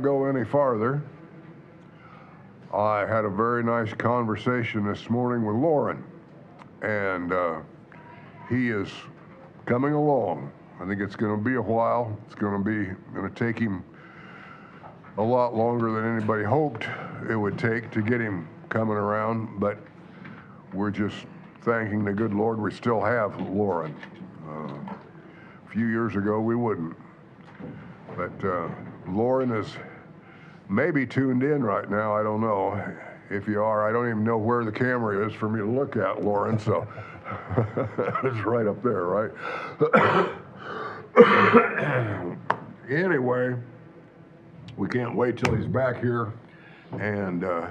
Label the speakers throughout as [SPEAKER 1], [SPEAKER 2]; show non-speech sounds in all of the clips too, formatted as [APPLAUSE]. [SPEAKER 1] go any farther, I had a very nice conversation this morning with Lauren, and uh, he is coming along. I think it's going to be a while. It's going to be going to take him a lot longer than anybody hoped it would take to get him coming around, but we're just thanking the good Lord we still have Lauren. Uh, a few years ago, we wouldn't. But uh, Lauren is maybe tuned in right now. I don't know. If you are, I don't even know where the camera is for me to look at, Lauren. So [LAUGHS] it's right up there, right? [COUGHS] anyway, we can't wait till he's back here, and uh,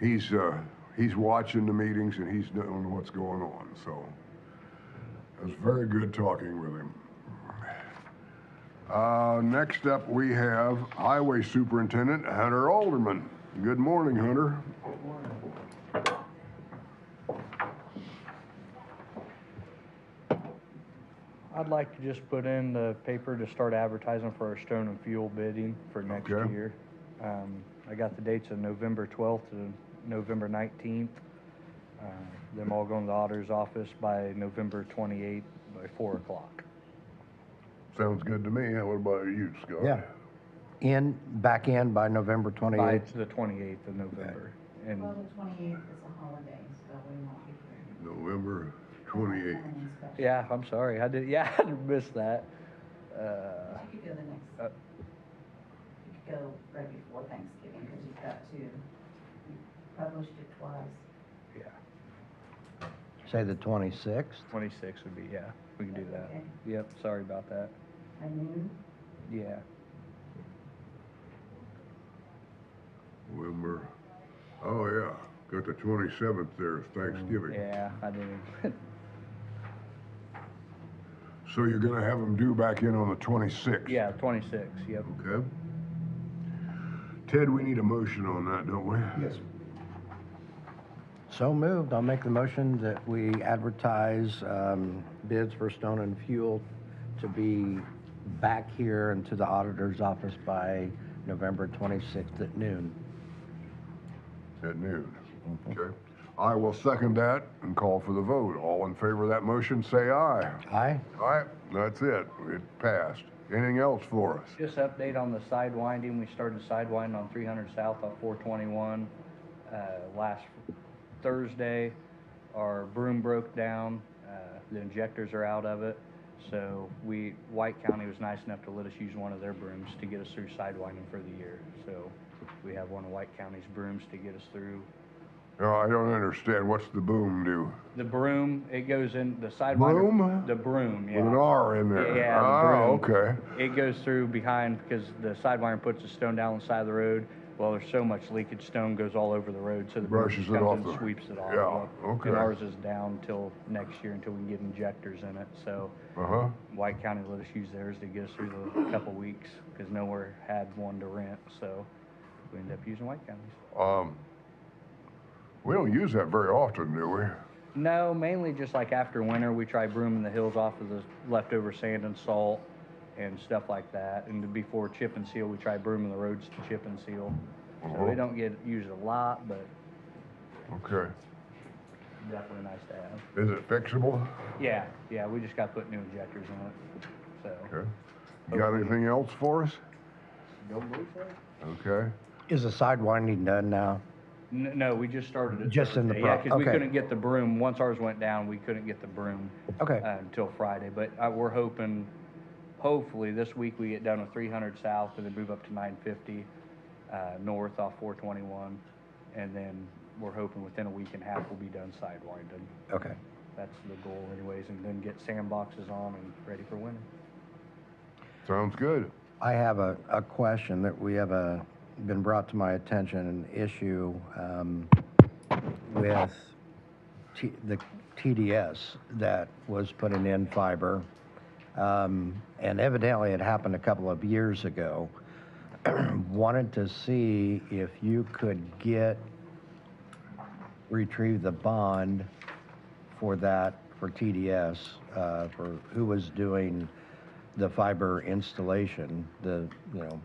[SPEAKER 1] he's uh, he's watching the meetings and he's doing what's going on. So it was very good talking with him. Uh, Next up, we have Highway Superintendent Hunter Alderman. Good morning, Hunter.
[SPEAKER 2] I'd like to just put in the paper to start advertising for our stone and fuel bidding for next
[SPEAKER 1] Okay.
[SPEAKER 2] year. Um, I got the dates of November twelfth to November nineteenth. Uh, Them all going to the auditor's office by November twenty-eighth by four o'clock.
[SPEAKER 1] Sounds good to me. What about you, Scott?
[SPEAKER 3] Yeah. In, back in by November
[SPEAKER 2] By
[SPEAKER 3] 28th.
[SPEAKER 2] the twenty-eighth of November. And
[SPEAKER 4] Well, the twenty-eighth is a holiday, so we won't be here.
[SPEAKER 1] November 28th.
[SPEAKER 4] Planning special.
[SPEAKER 2] Yeah, I'm sorry. I did, yeah, [LAUGHS] I missed that. Uh,
[SPEAKER 4] You could go the next,
[SPEAKER 2] Uh,
[SPEAKER 4] you could go right before Thanksgiving, because you've got to, you published it twice.
[SPEAKER 2] yeah,
[SPEAKER 3] Say the 26th.
[SPEAKER 2] twenty-six would be, yeah, we can do that.
[SPEAKER 4] Okay.
[SPEAKER 2] Yep, sorry about that.
[SPEAKER 4] I knew,
[SPEAKER 2] Yeah,
[SPEAKER 1] November, oh, yeah. Got the 27th there, it's Thanksgiving.
[SPEAKER 2] yeah, I didn't.
[SPEAKER 1] So you're gonna have them due back in on the 26th?
[SPEAKER 2] [LAUGHS] Yeah, twenty-six, yep.
[SPEAKER 1] Okay. Ted, we need a motion on that, don't we? Yes.
[SPEAKER 3] So moved. I'll make the motion that we advertise um, bids for stone and fuel to be back here and to the auditor's office by November 26th at noon.
[SPEAKER 1] At noon. Okay. I will second that and call for the vote. All in favor of that motion, say aye.
[SPEAKER 3] Aye?
[SPEAKER 1] All right, that's it. It passed. Anything else for us?
[SPEAKER 2] Just update on the sidewinding, we started sidewinding on three hundred south of four twenty-one, uh, last Thursday. Our broom broke down, uh, the injectors are out of it, so we, White County was nice enough to let us use one of their brooms to get us through sidewinding for the year. So we have one of White County's brooms to get us through.
[SPEAKER 1] No, I don't understand. What's the boom do?
[SPEAKER 2] The broom, it goes in the sidewinder.
[SPEAKER 1] Broom?
[SPEAKER 2] The broom, yeah.
[SPEAKER 1] With an R in there.
[SPEAKER 2] Yeah, Oh, the
[SPEAKER 1] Ah,
[SPEAKER 2] broom.
[SPEAKER 1] okay.
[SPEAKER 2] It goes through behind because the sidewinder puts the stone down on the side of the road. Well, there's so much leakage, stone goes all over the road, so the broom
[SPEAKER 1] Brushes
[SPEAKER 2] just
[SPEAKER 1] it
[SPEAKER 2] comes
[SPEAKER 1] off
[SPEAKER 2] and
[SPEAKER 1] the-
[SPEAKER 2] sweeps it off.
[SPEAKER 1] yeah, okay.
[SPEAKER 2] And ours is down till next year until we can get injectors in it. So
[SPEAKER 1] Uh-huh.
[SPEAKER 2] White County let us use theirs to get us through the couple weeks because nowhere had one to rent. So we ended up using White County's.
[SPEAKER 1] Um, we don't use that very often, do we?
[SPEAKER 2] No, mainly just like after winter, we try brooming the hills off of the leftover sand and salt and stuff like that. And before chip and seal, we try brooming the roads to chip and seal. So
[SPEAKER 1] Uh-huh.
[SPEAKER 2] we don't get used a lot, but
[SPEAKER 1] Okay.
[SPEAKER 2] definitely nice to have.
[SPEAKER 1] Is it fixable?
[SPEAKER 2] Yeah, yeah, we just got to put new injectors in it. So,
[SPEAKER 1] Okay. You got anything else for us?
[SPEAKER 2] don't believe so?
[SPEAKER 1] Okay.
[SPEAKER 3] Is the sidewinding done now?
[SPEAKER 2] N- No, we just started it.
[SPEAKER 3] Just in the
[SPEAKER 2] Thursday. Yeah,
[SPEAKER 3] bro-
[SPEAKER 2] because we
[SPEAKER 3] okay.
[SPEAKER 2] couldn't get the broom. Once ours went down, we couldn't get the broom.
[SPEAKER 3] Okay.
[SPEAKER 2] uh, until Friday, but uh, we're hoping, hopefully, this week we get down to three hundred south and then move up to nine fifty, uh, north off four twenty-one. And then we're hoping within a week and a half we'll be done sidewinding.
[SPEAKER 3] Okay.
[SPEAKER 2] That's the goal anyways, and then get sandboxes on and ready for winter.
[SPEAKER 1] Sounds good.
[SPEAKER 3] I have a, a question that we have a, been brought to my attention, an issue um, with T- the TDS that was putting in fiber. Um, And evidently, it happened a couple of years ago. [CLEARS THROAT] Wanted to see if you could get, retrieve the bond for that, for TDS, uh, for who was doing the fiber installation, the, you know,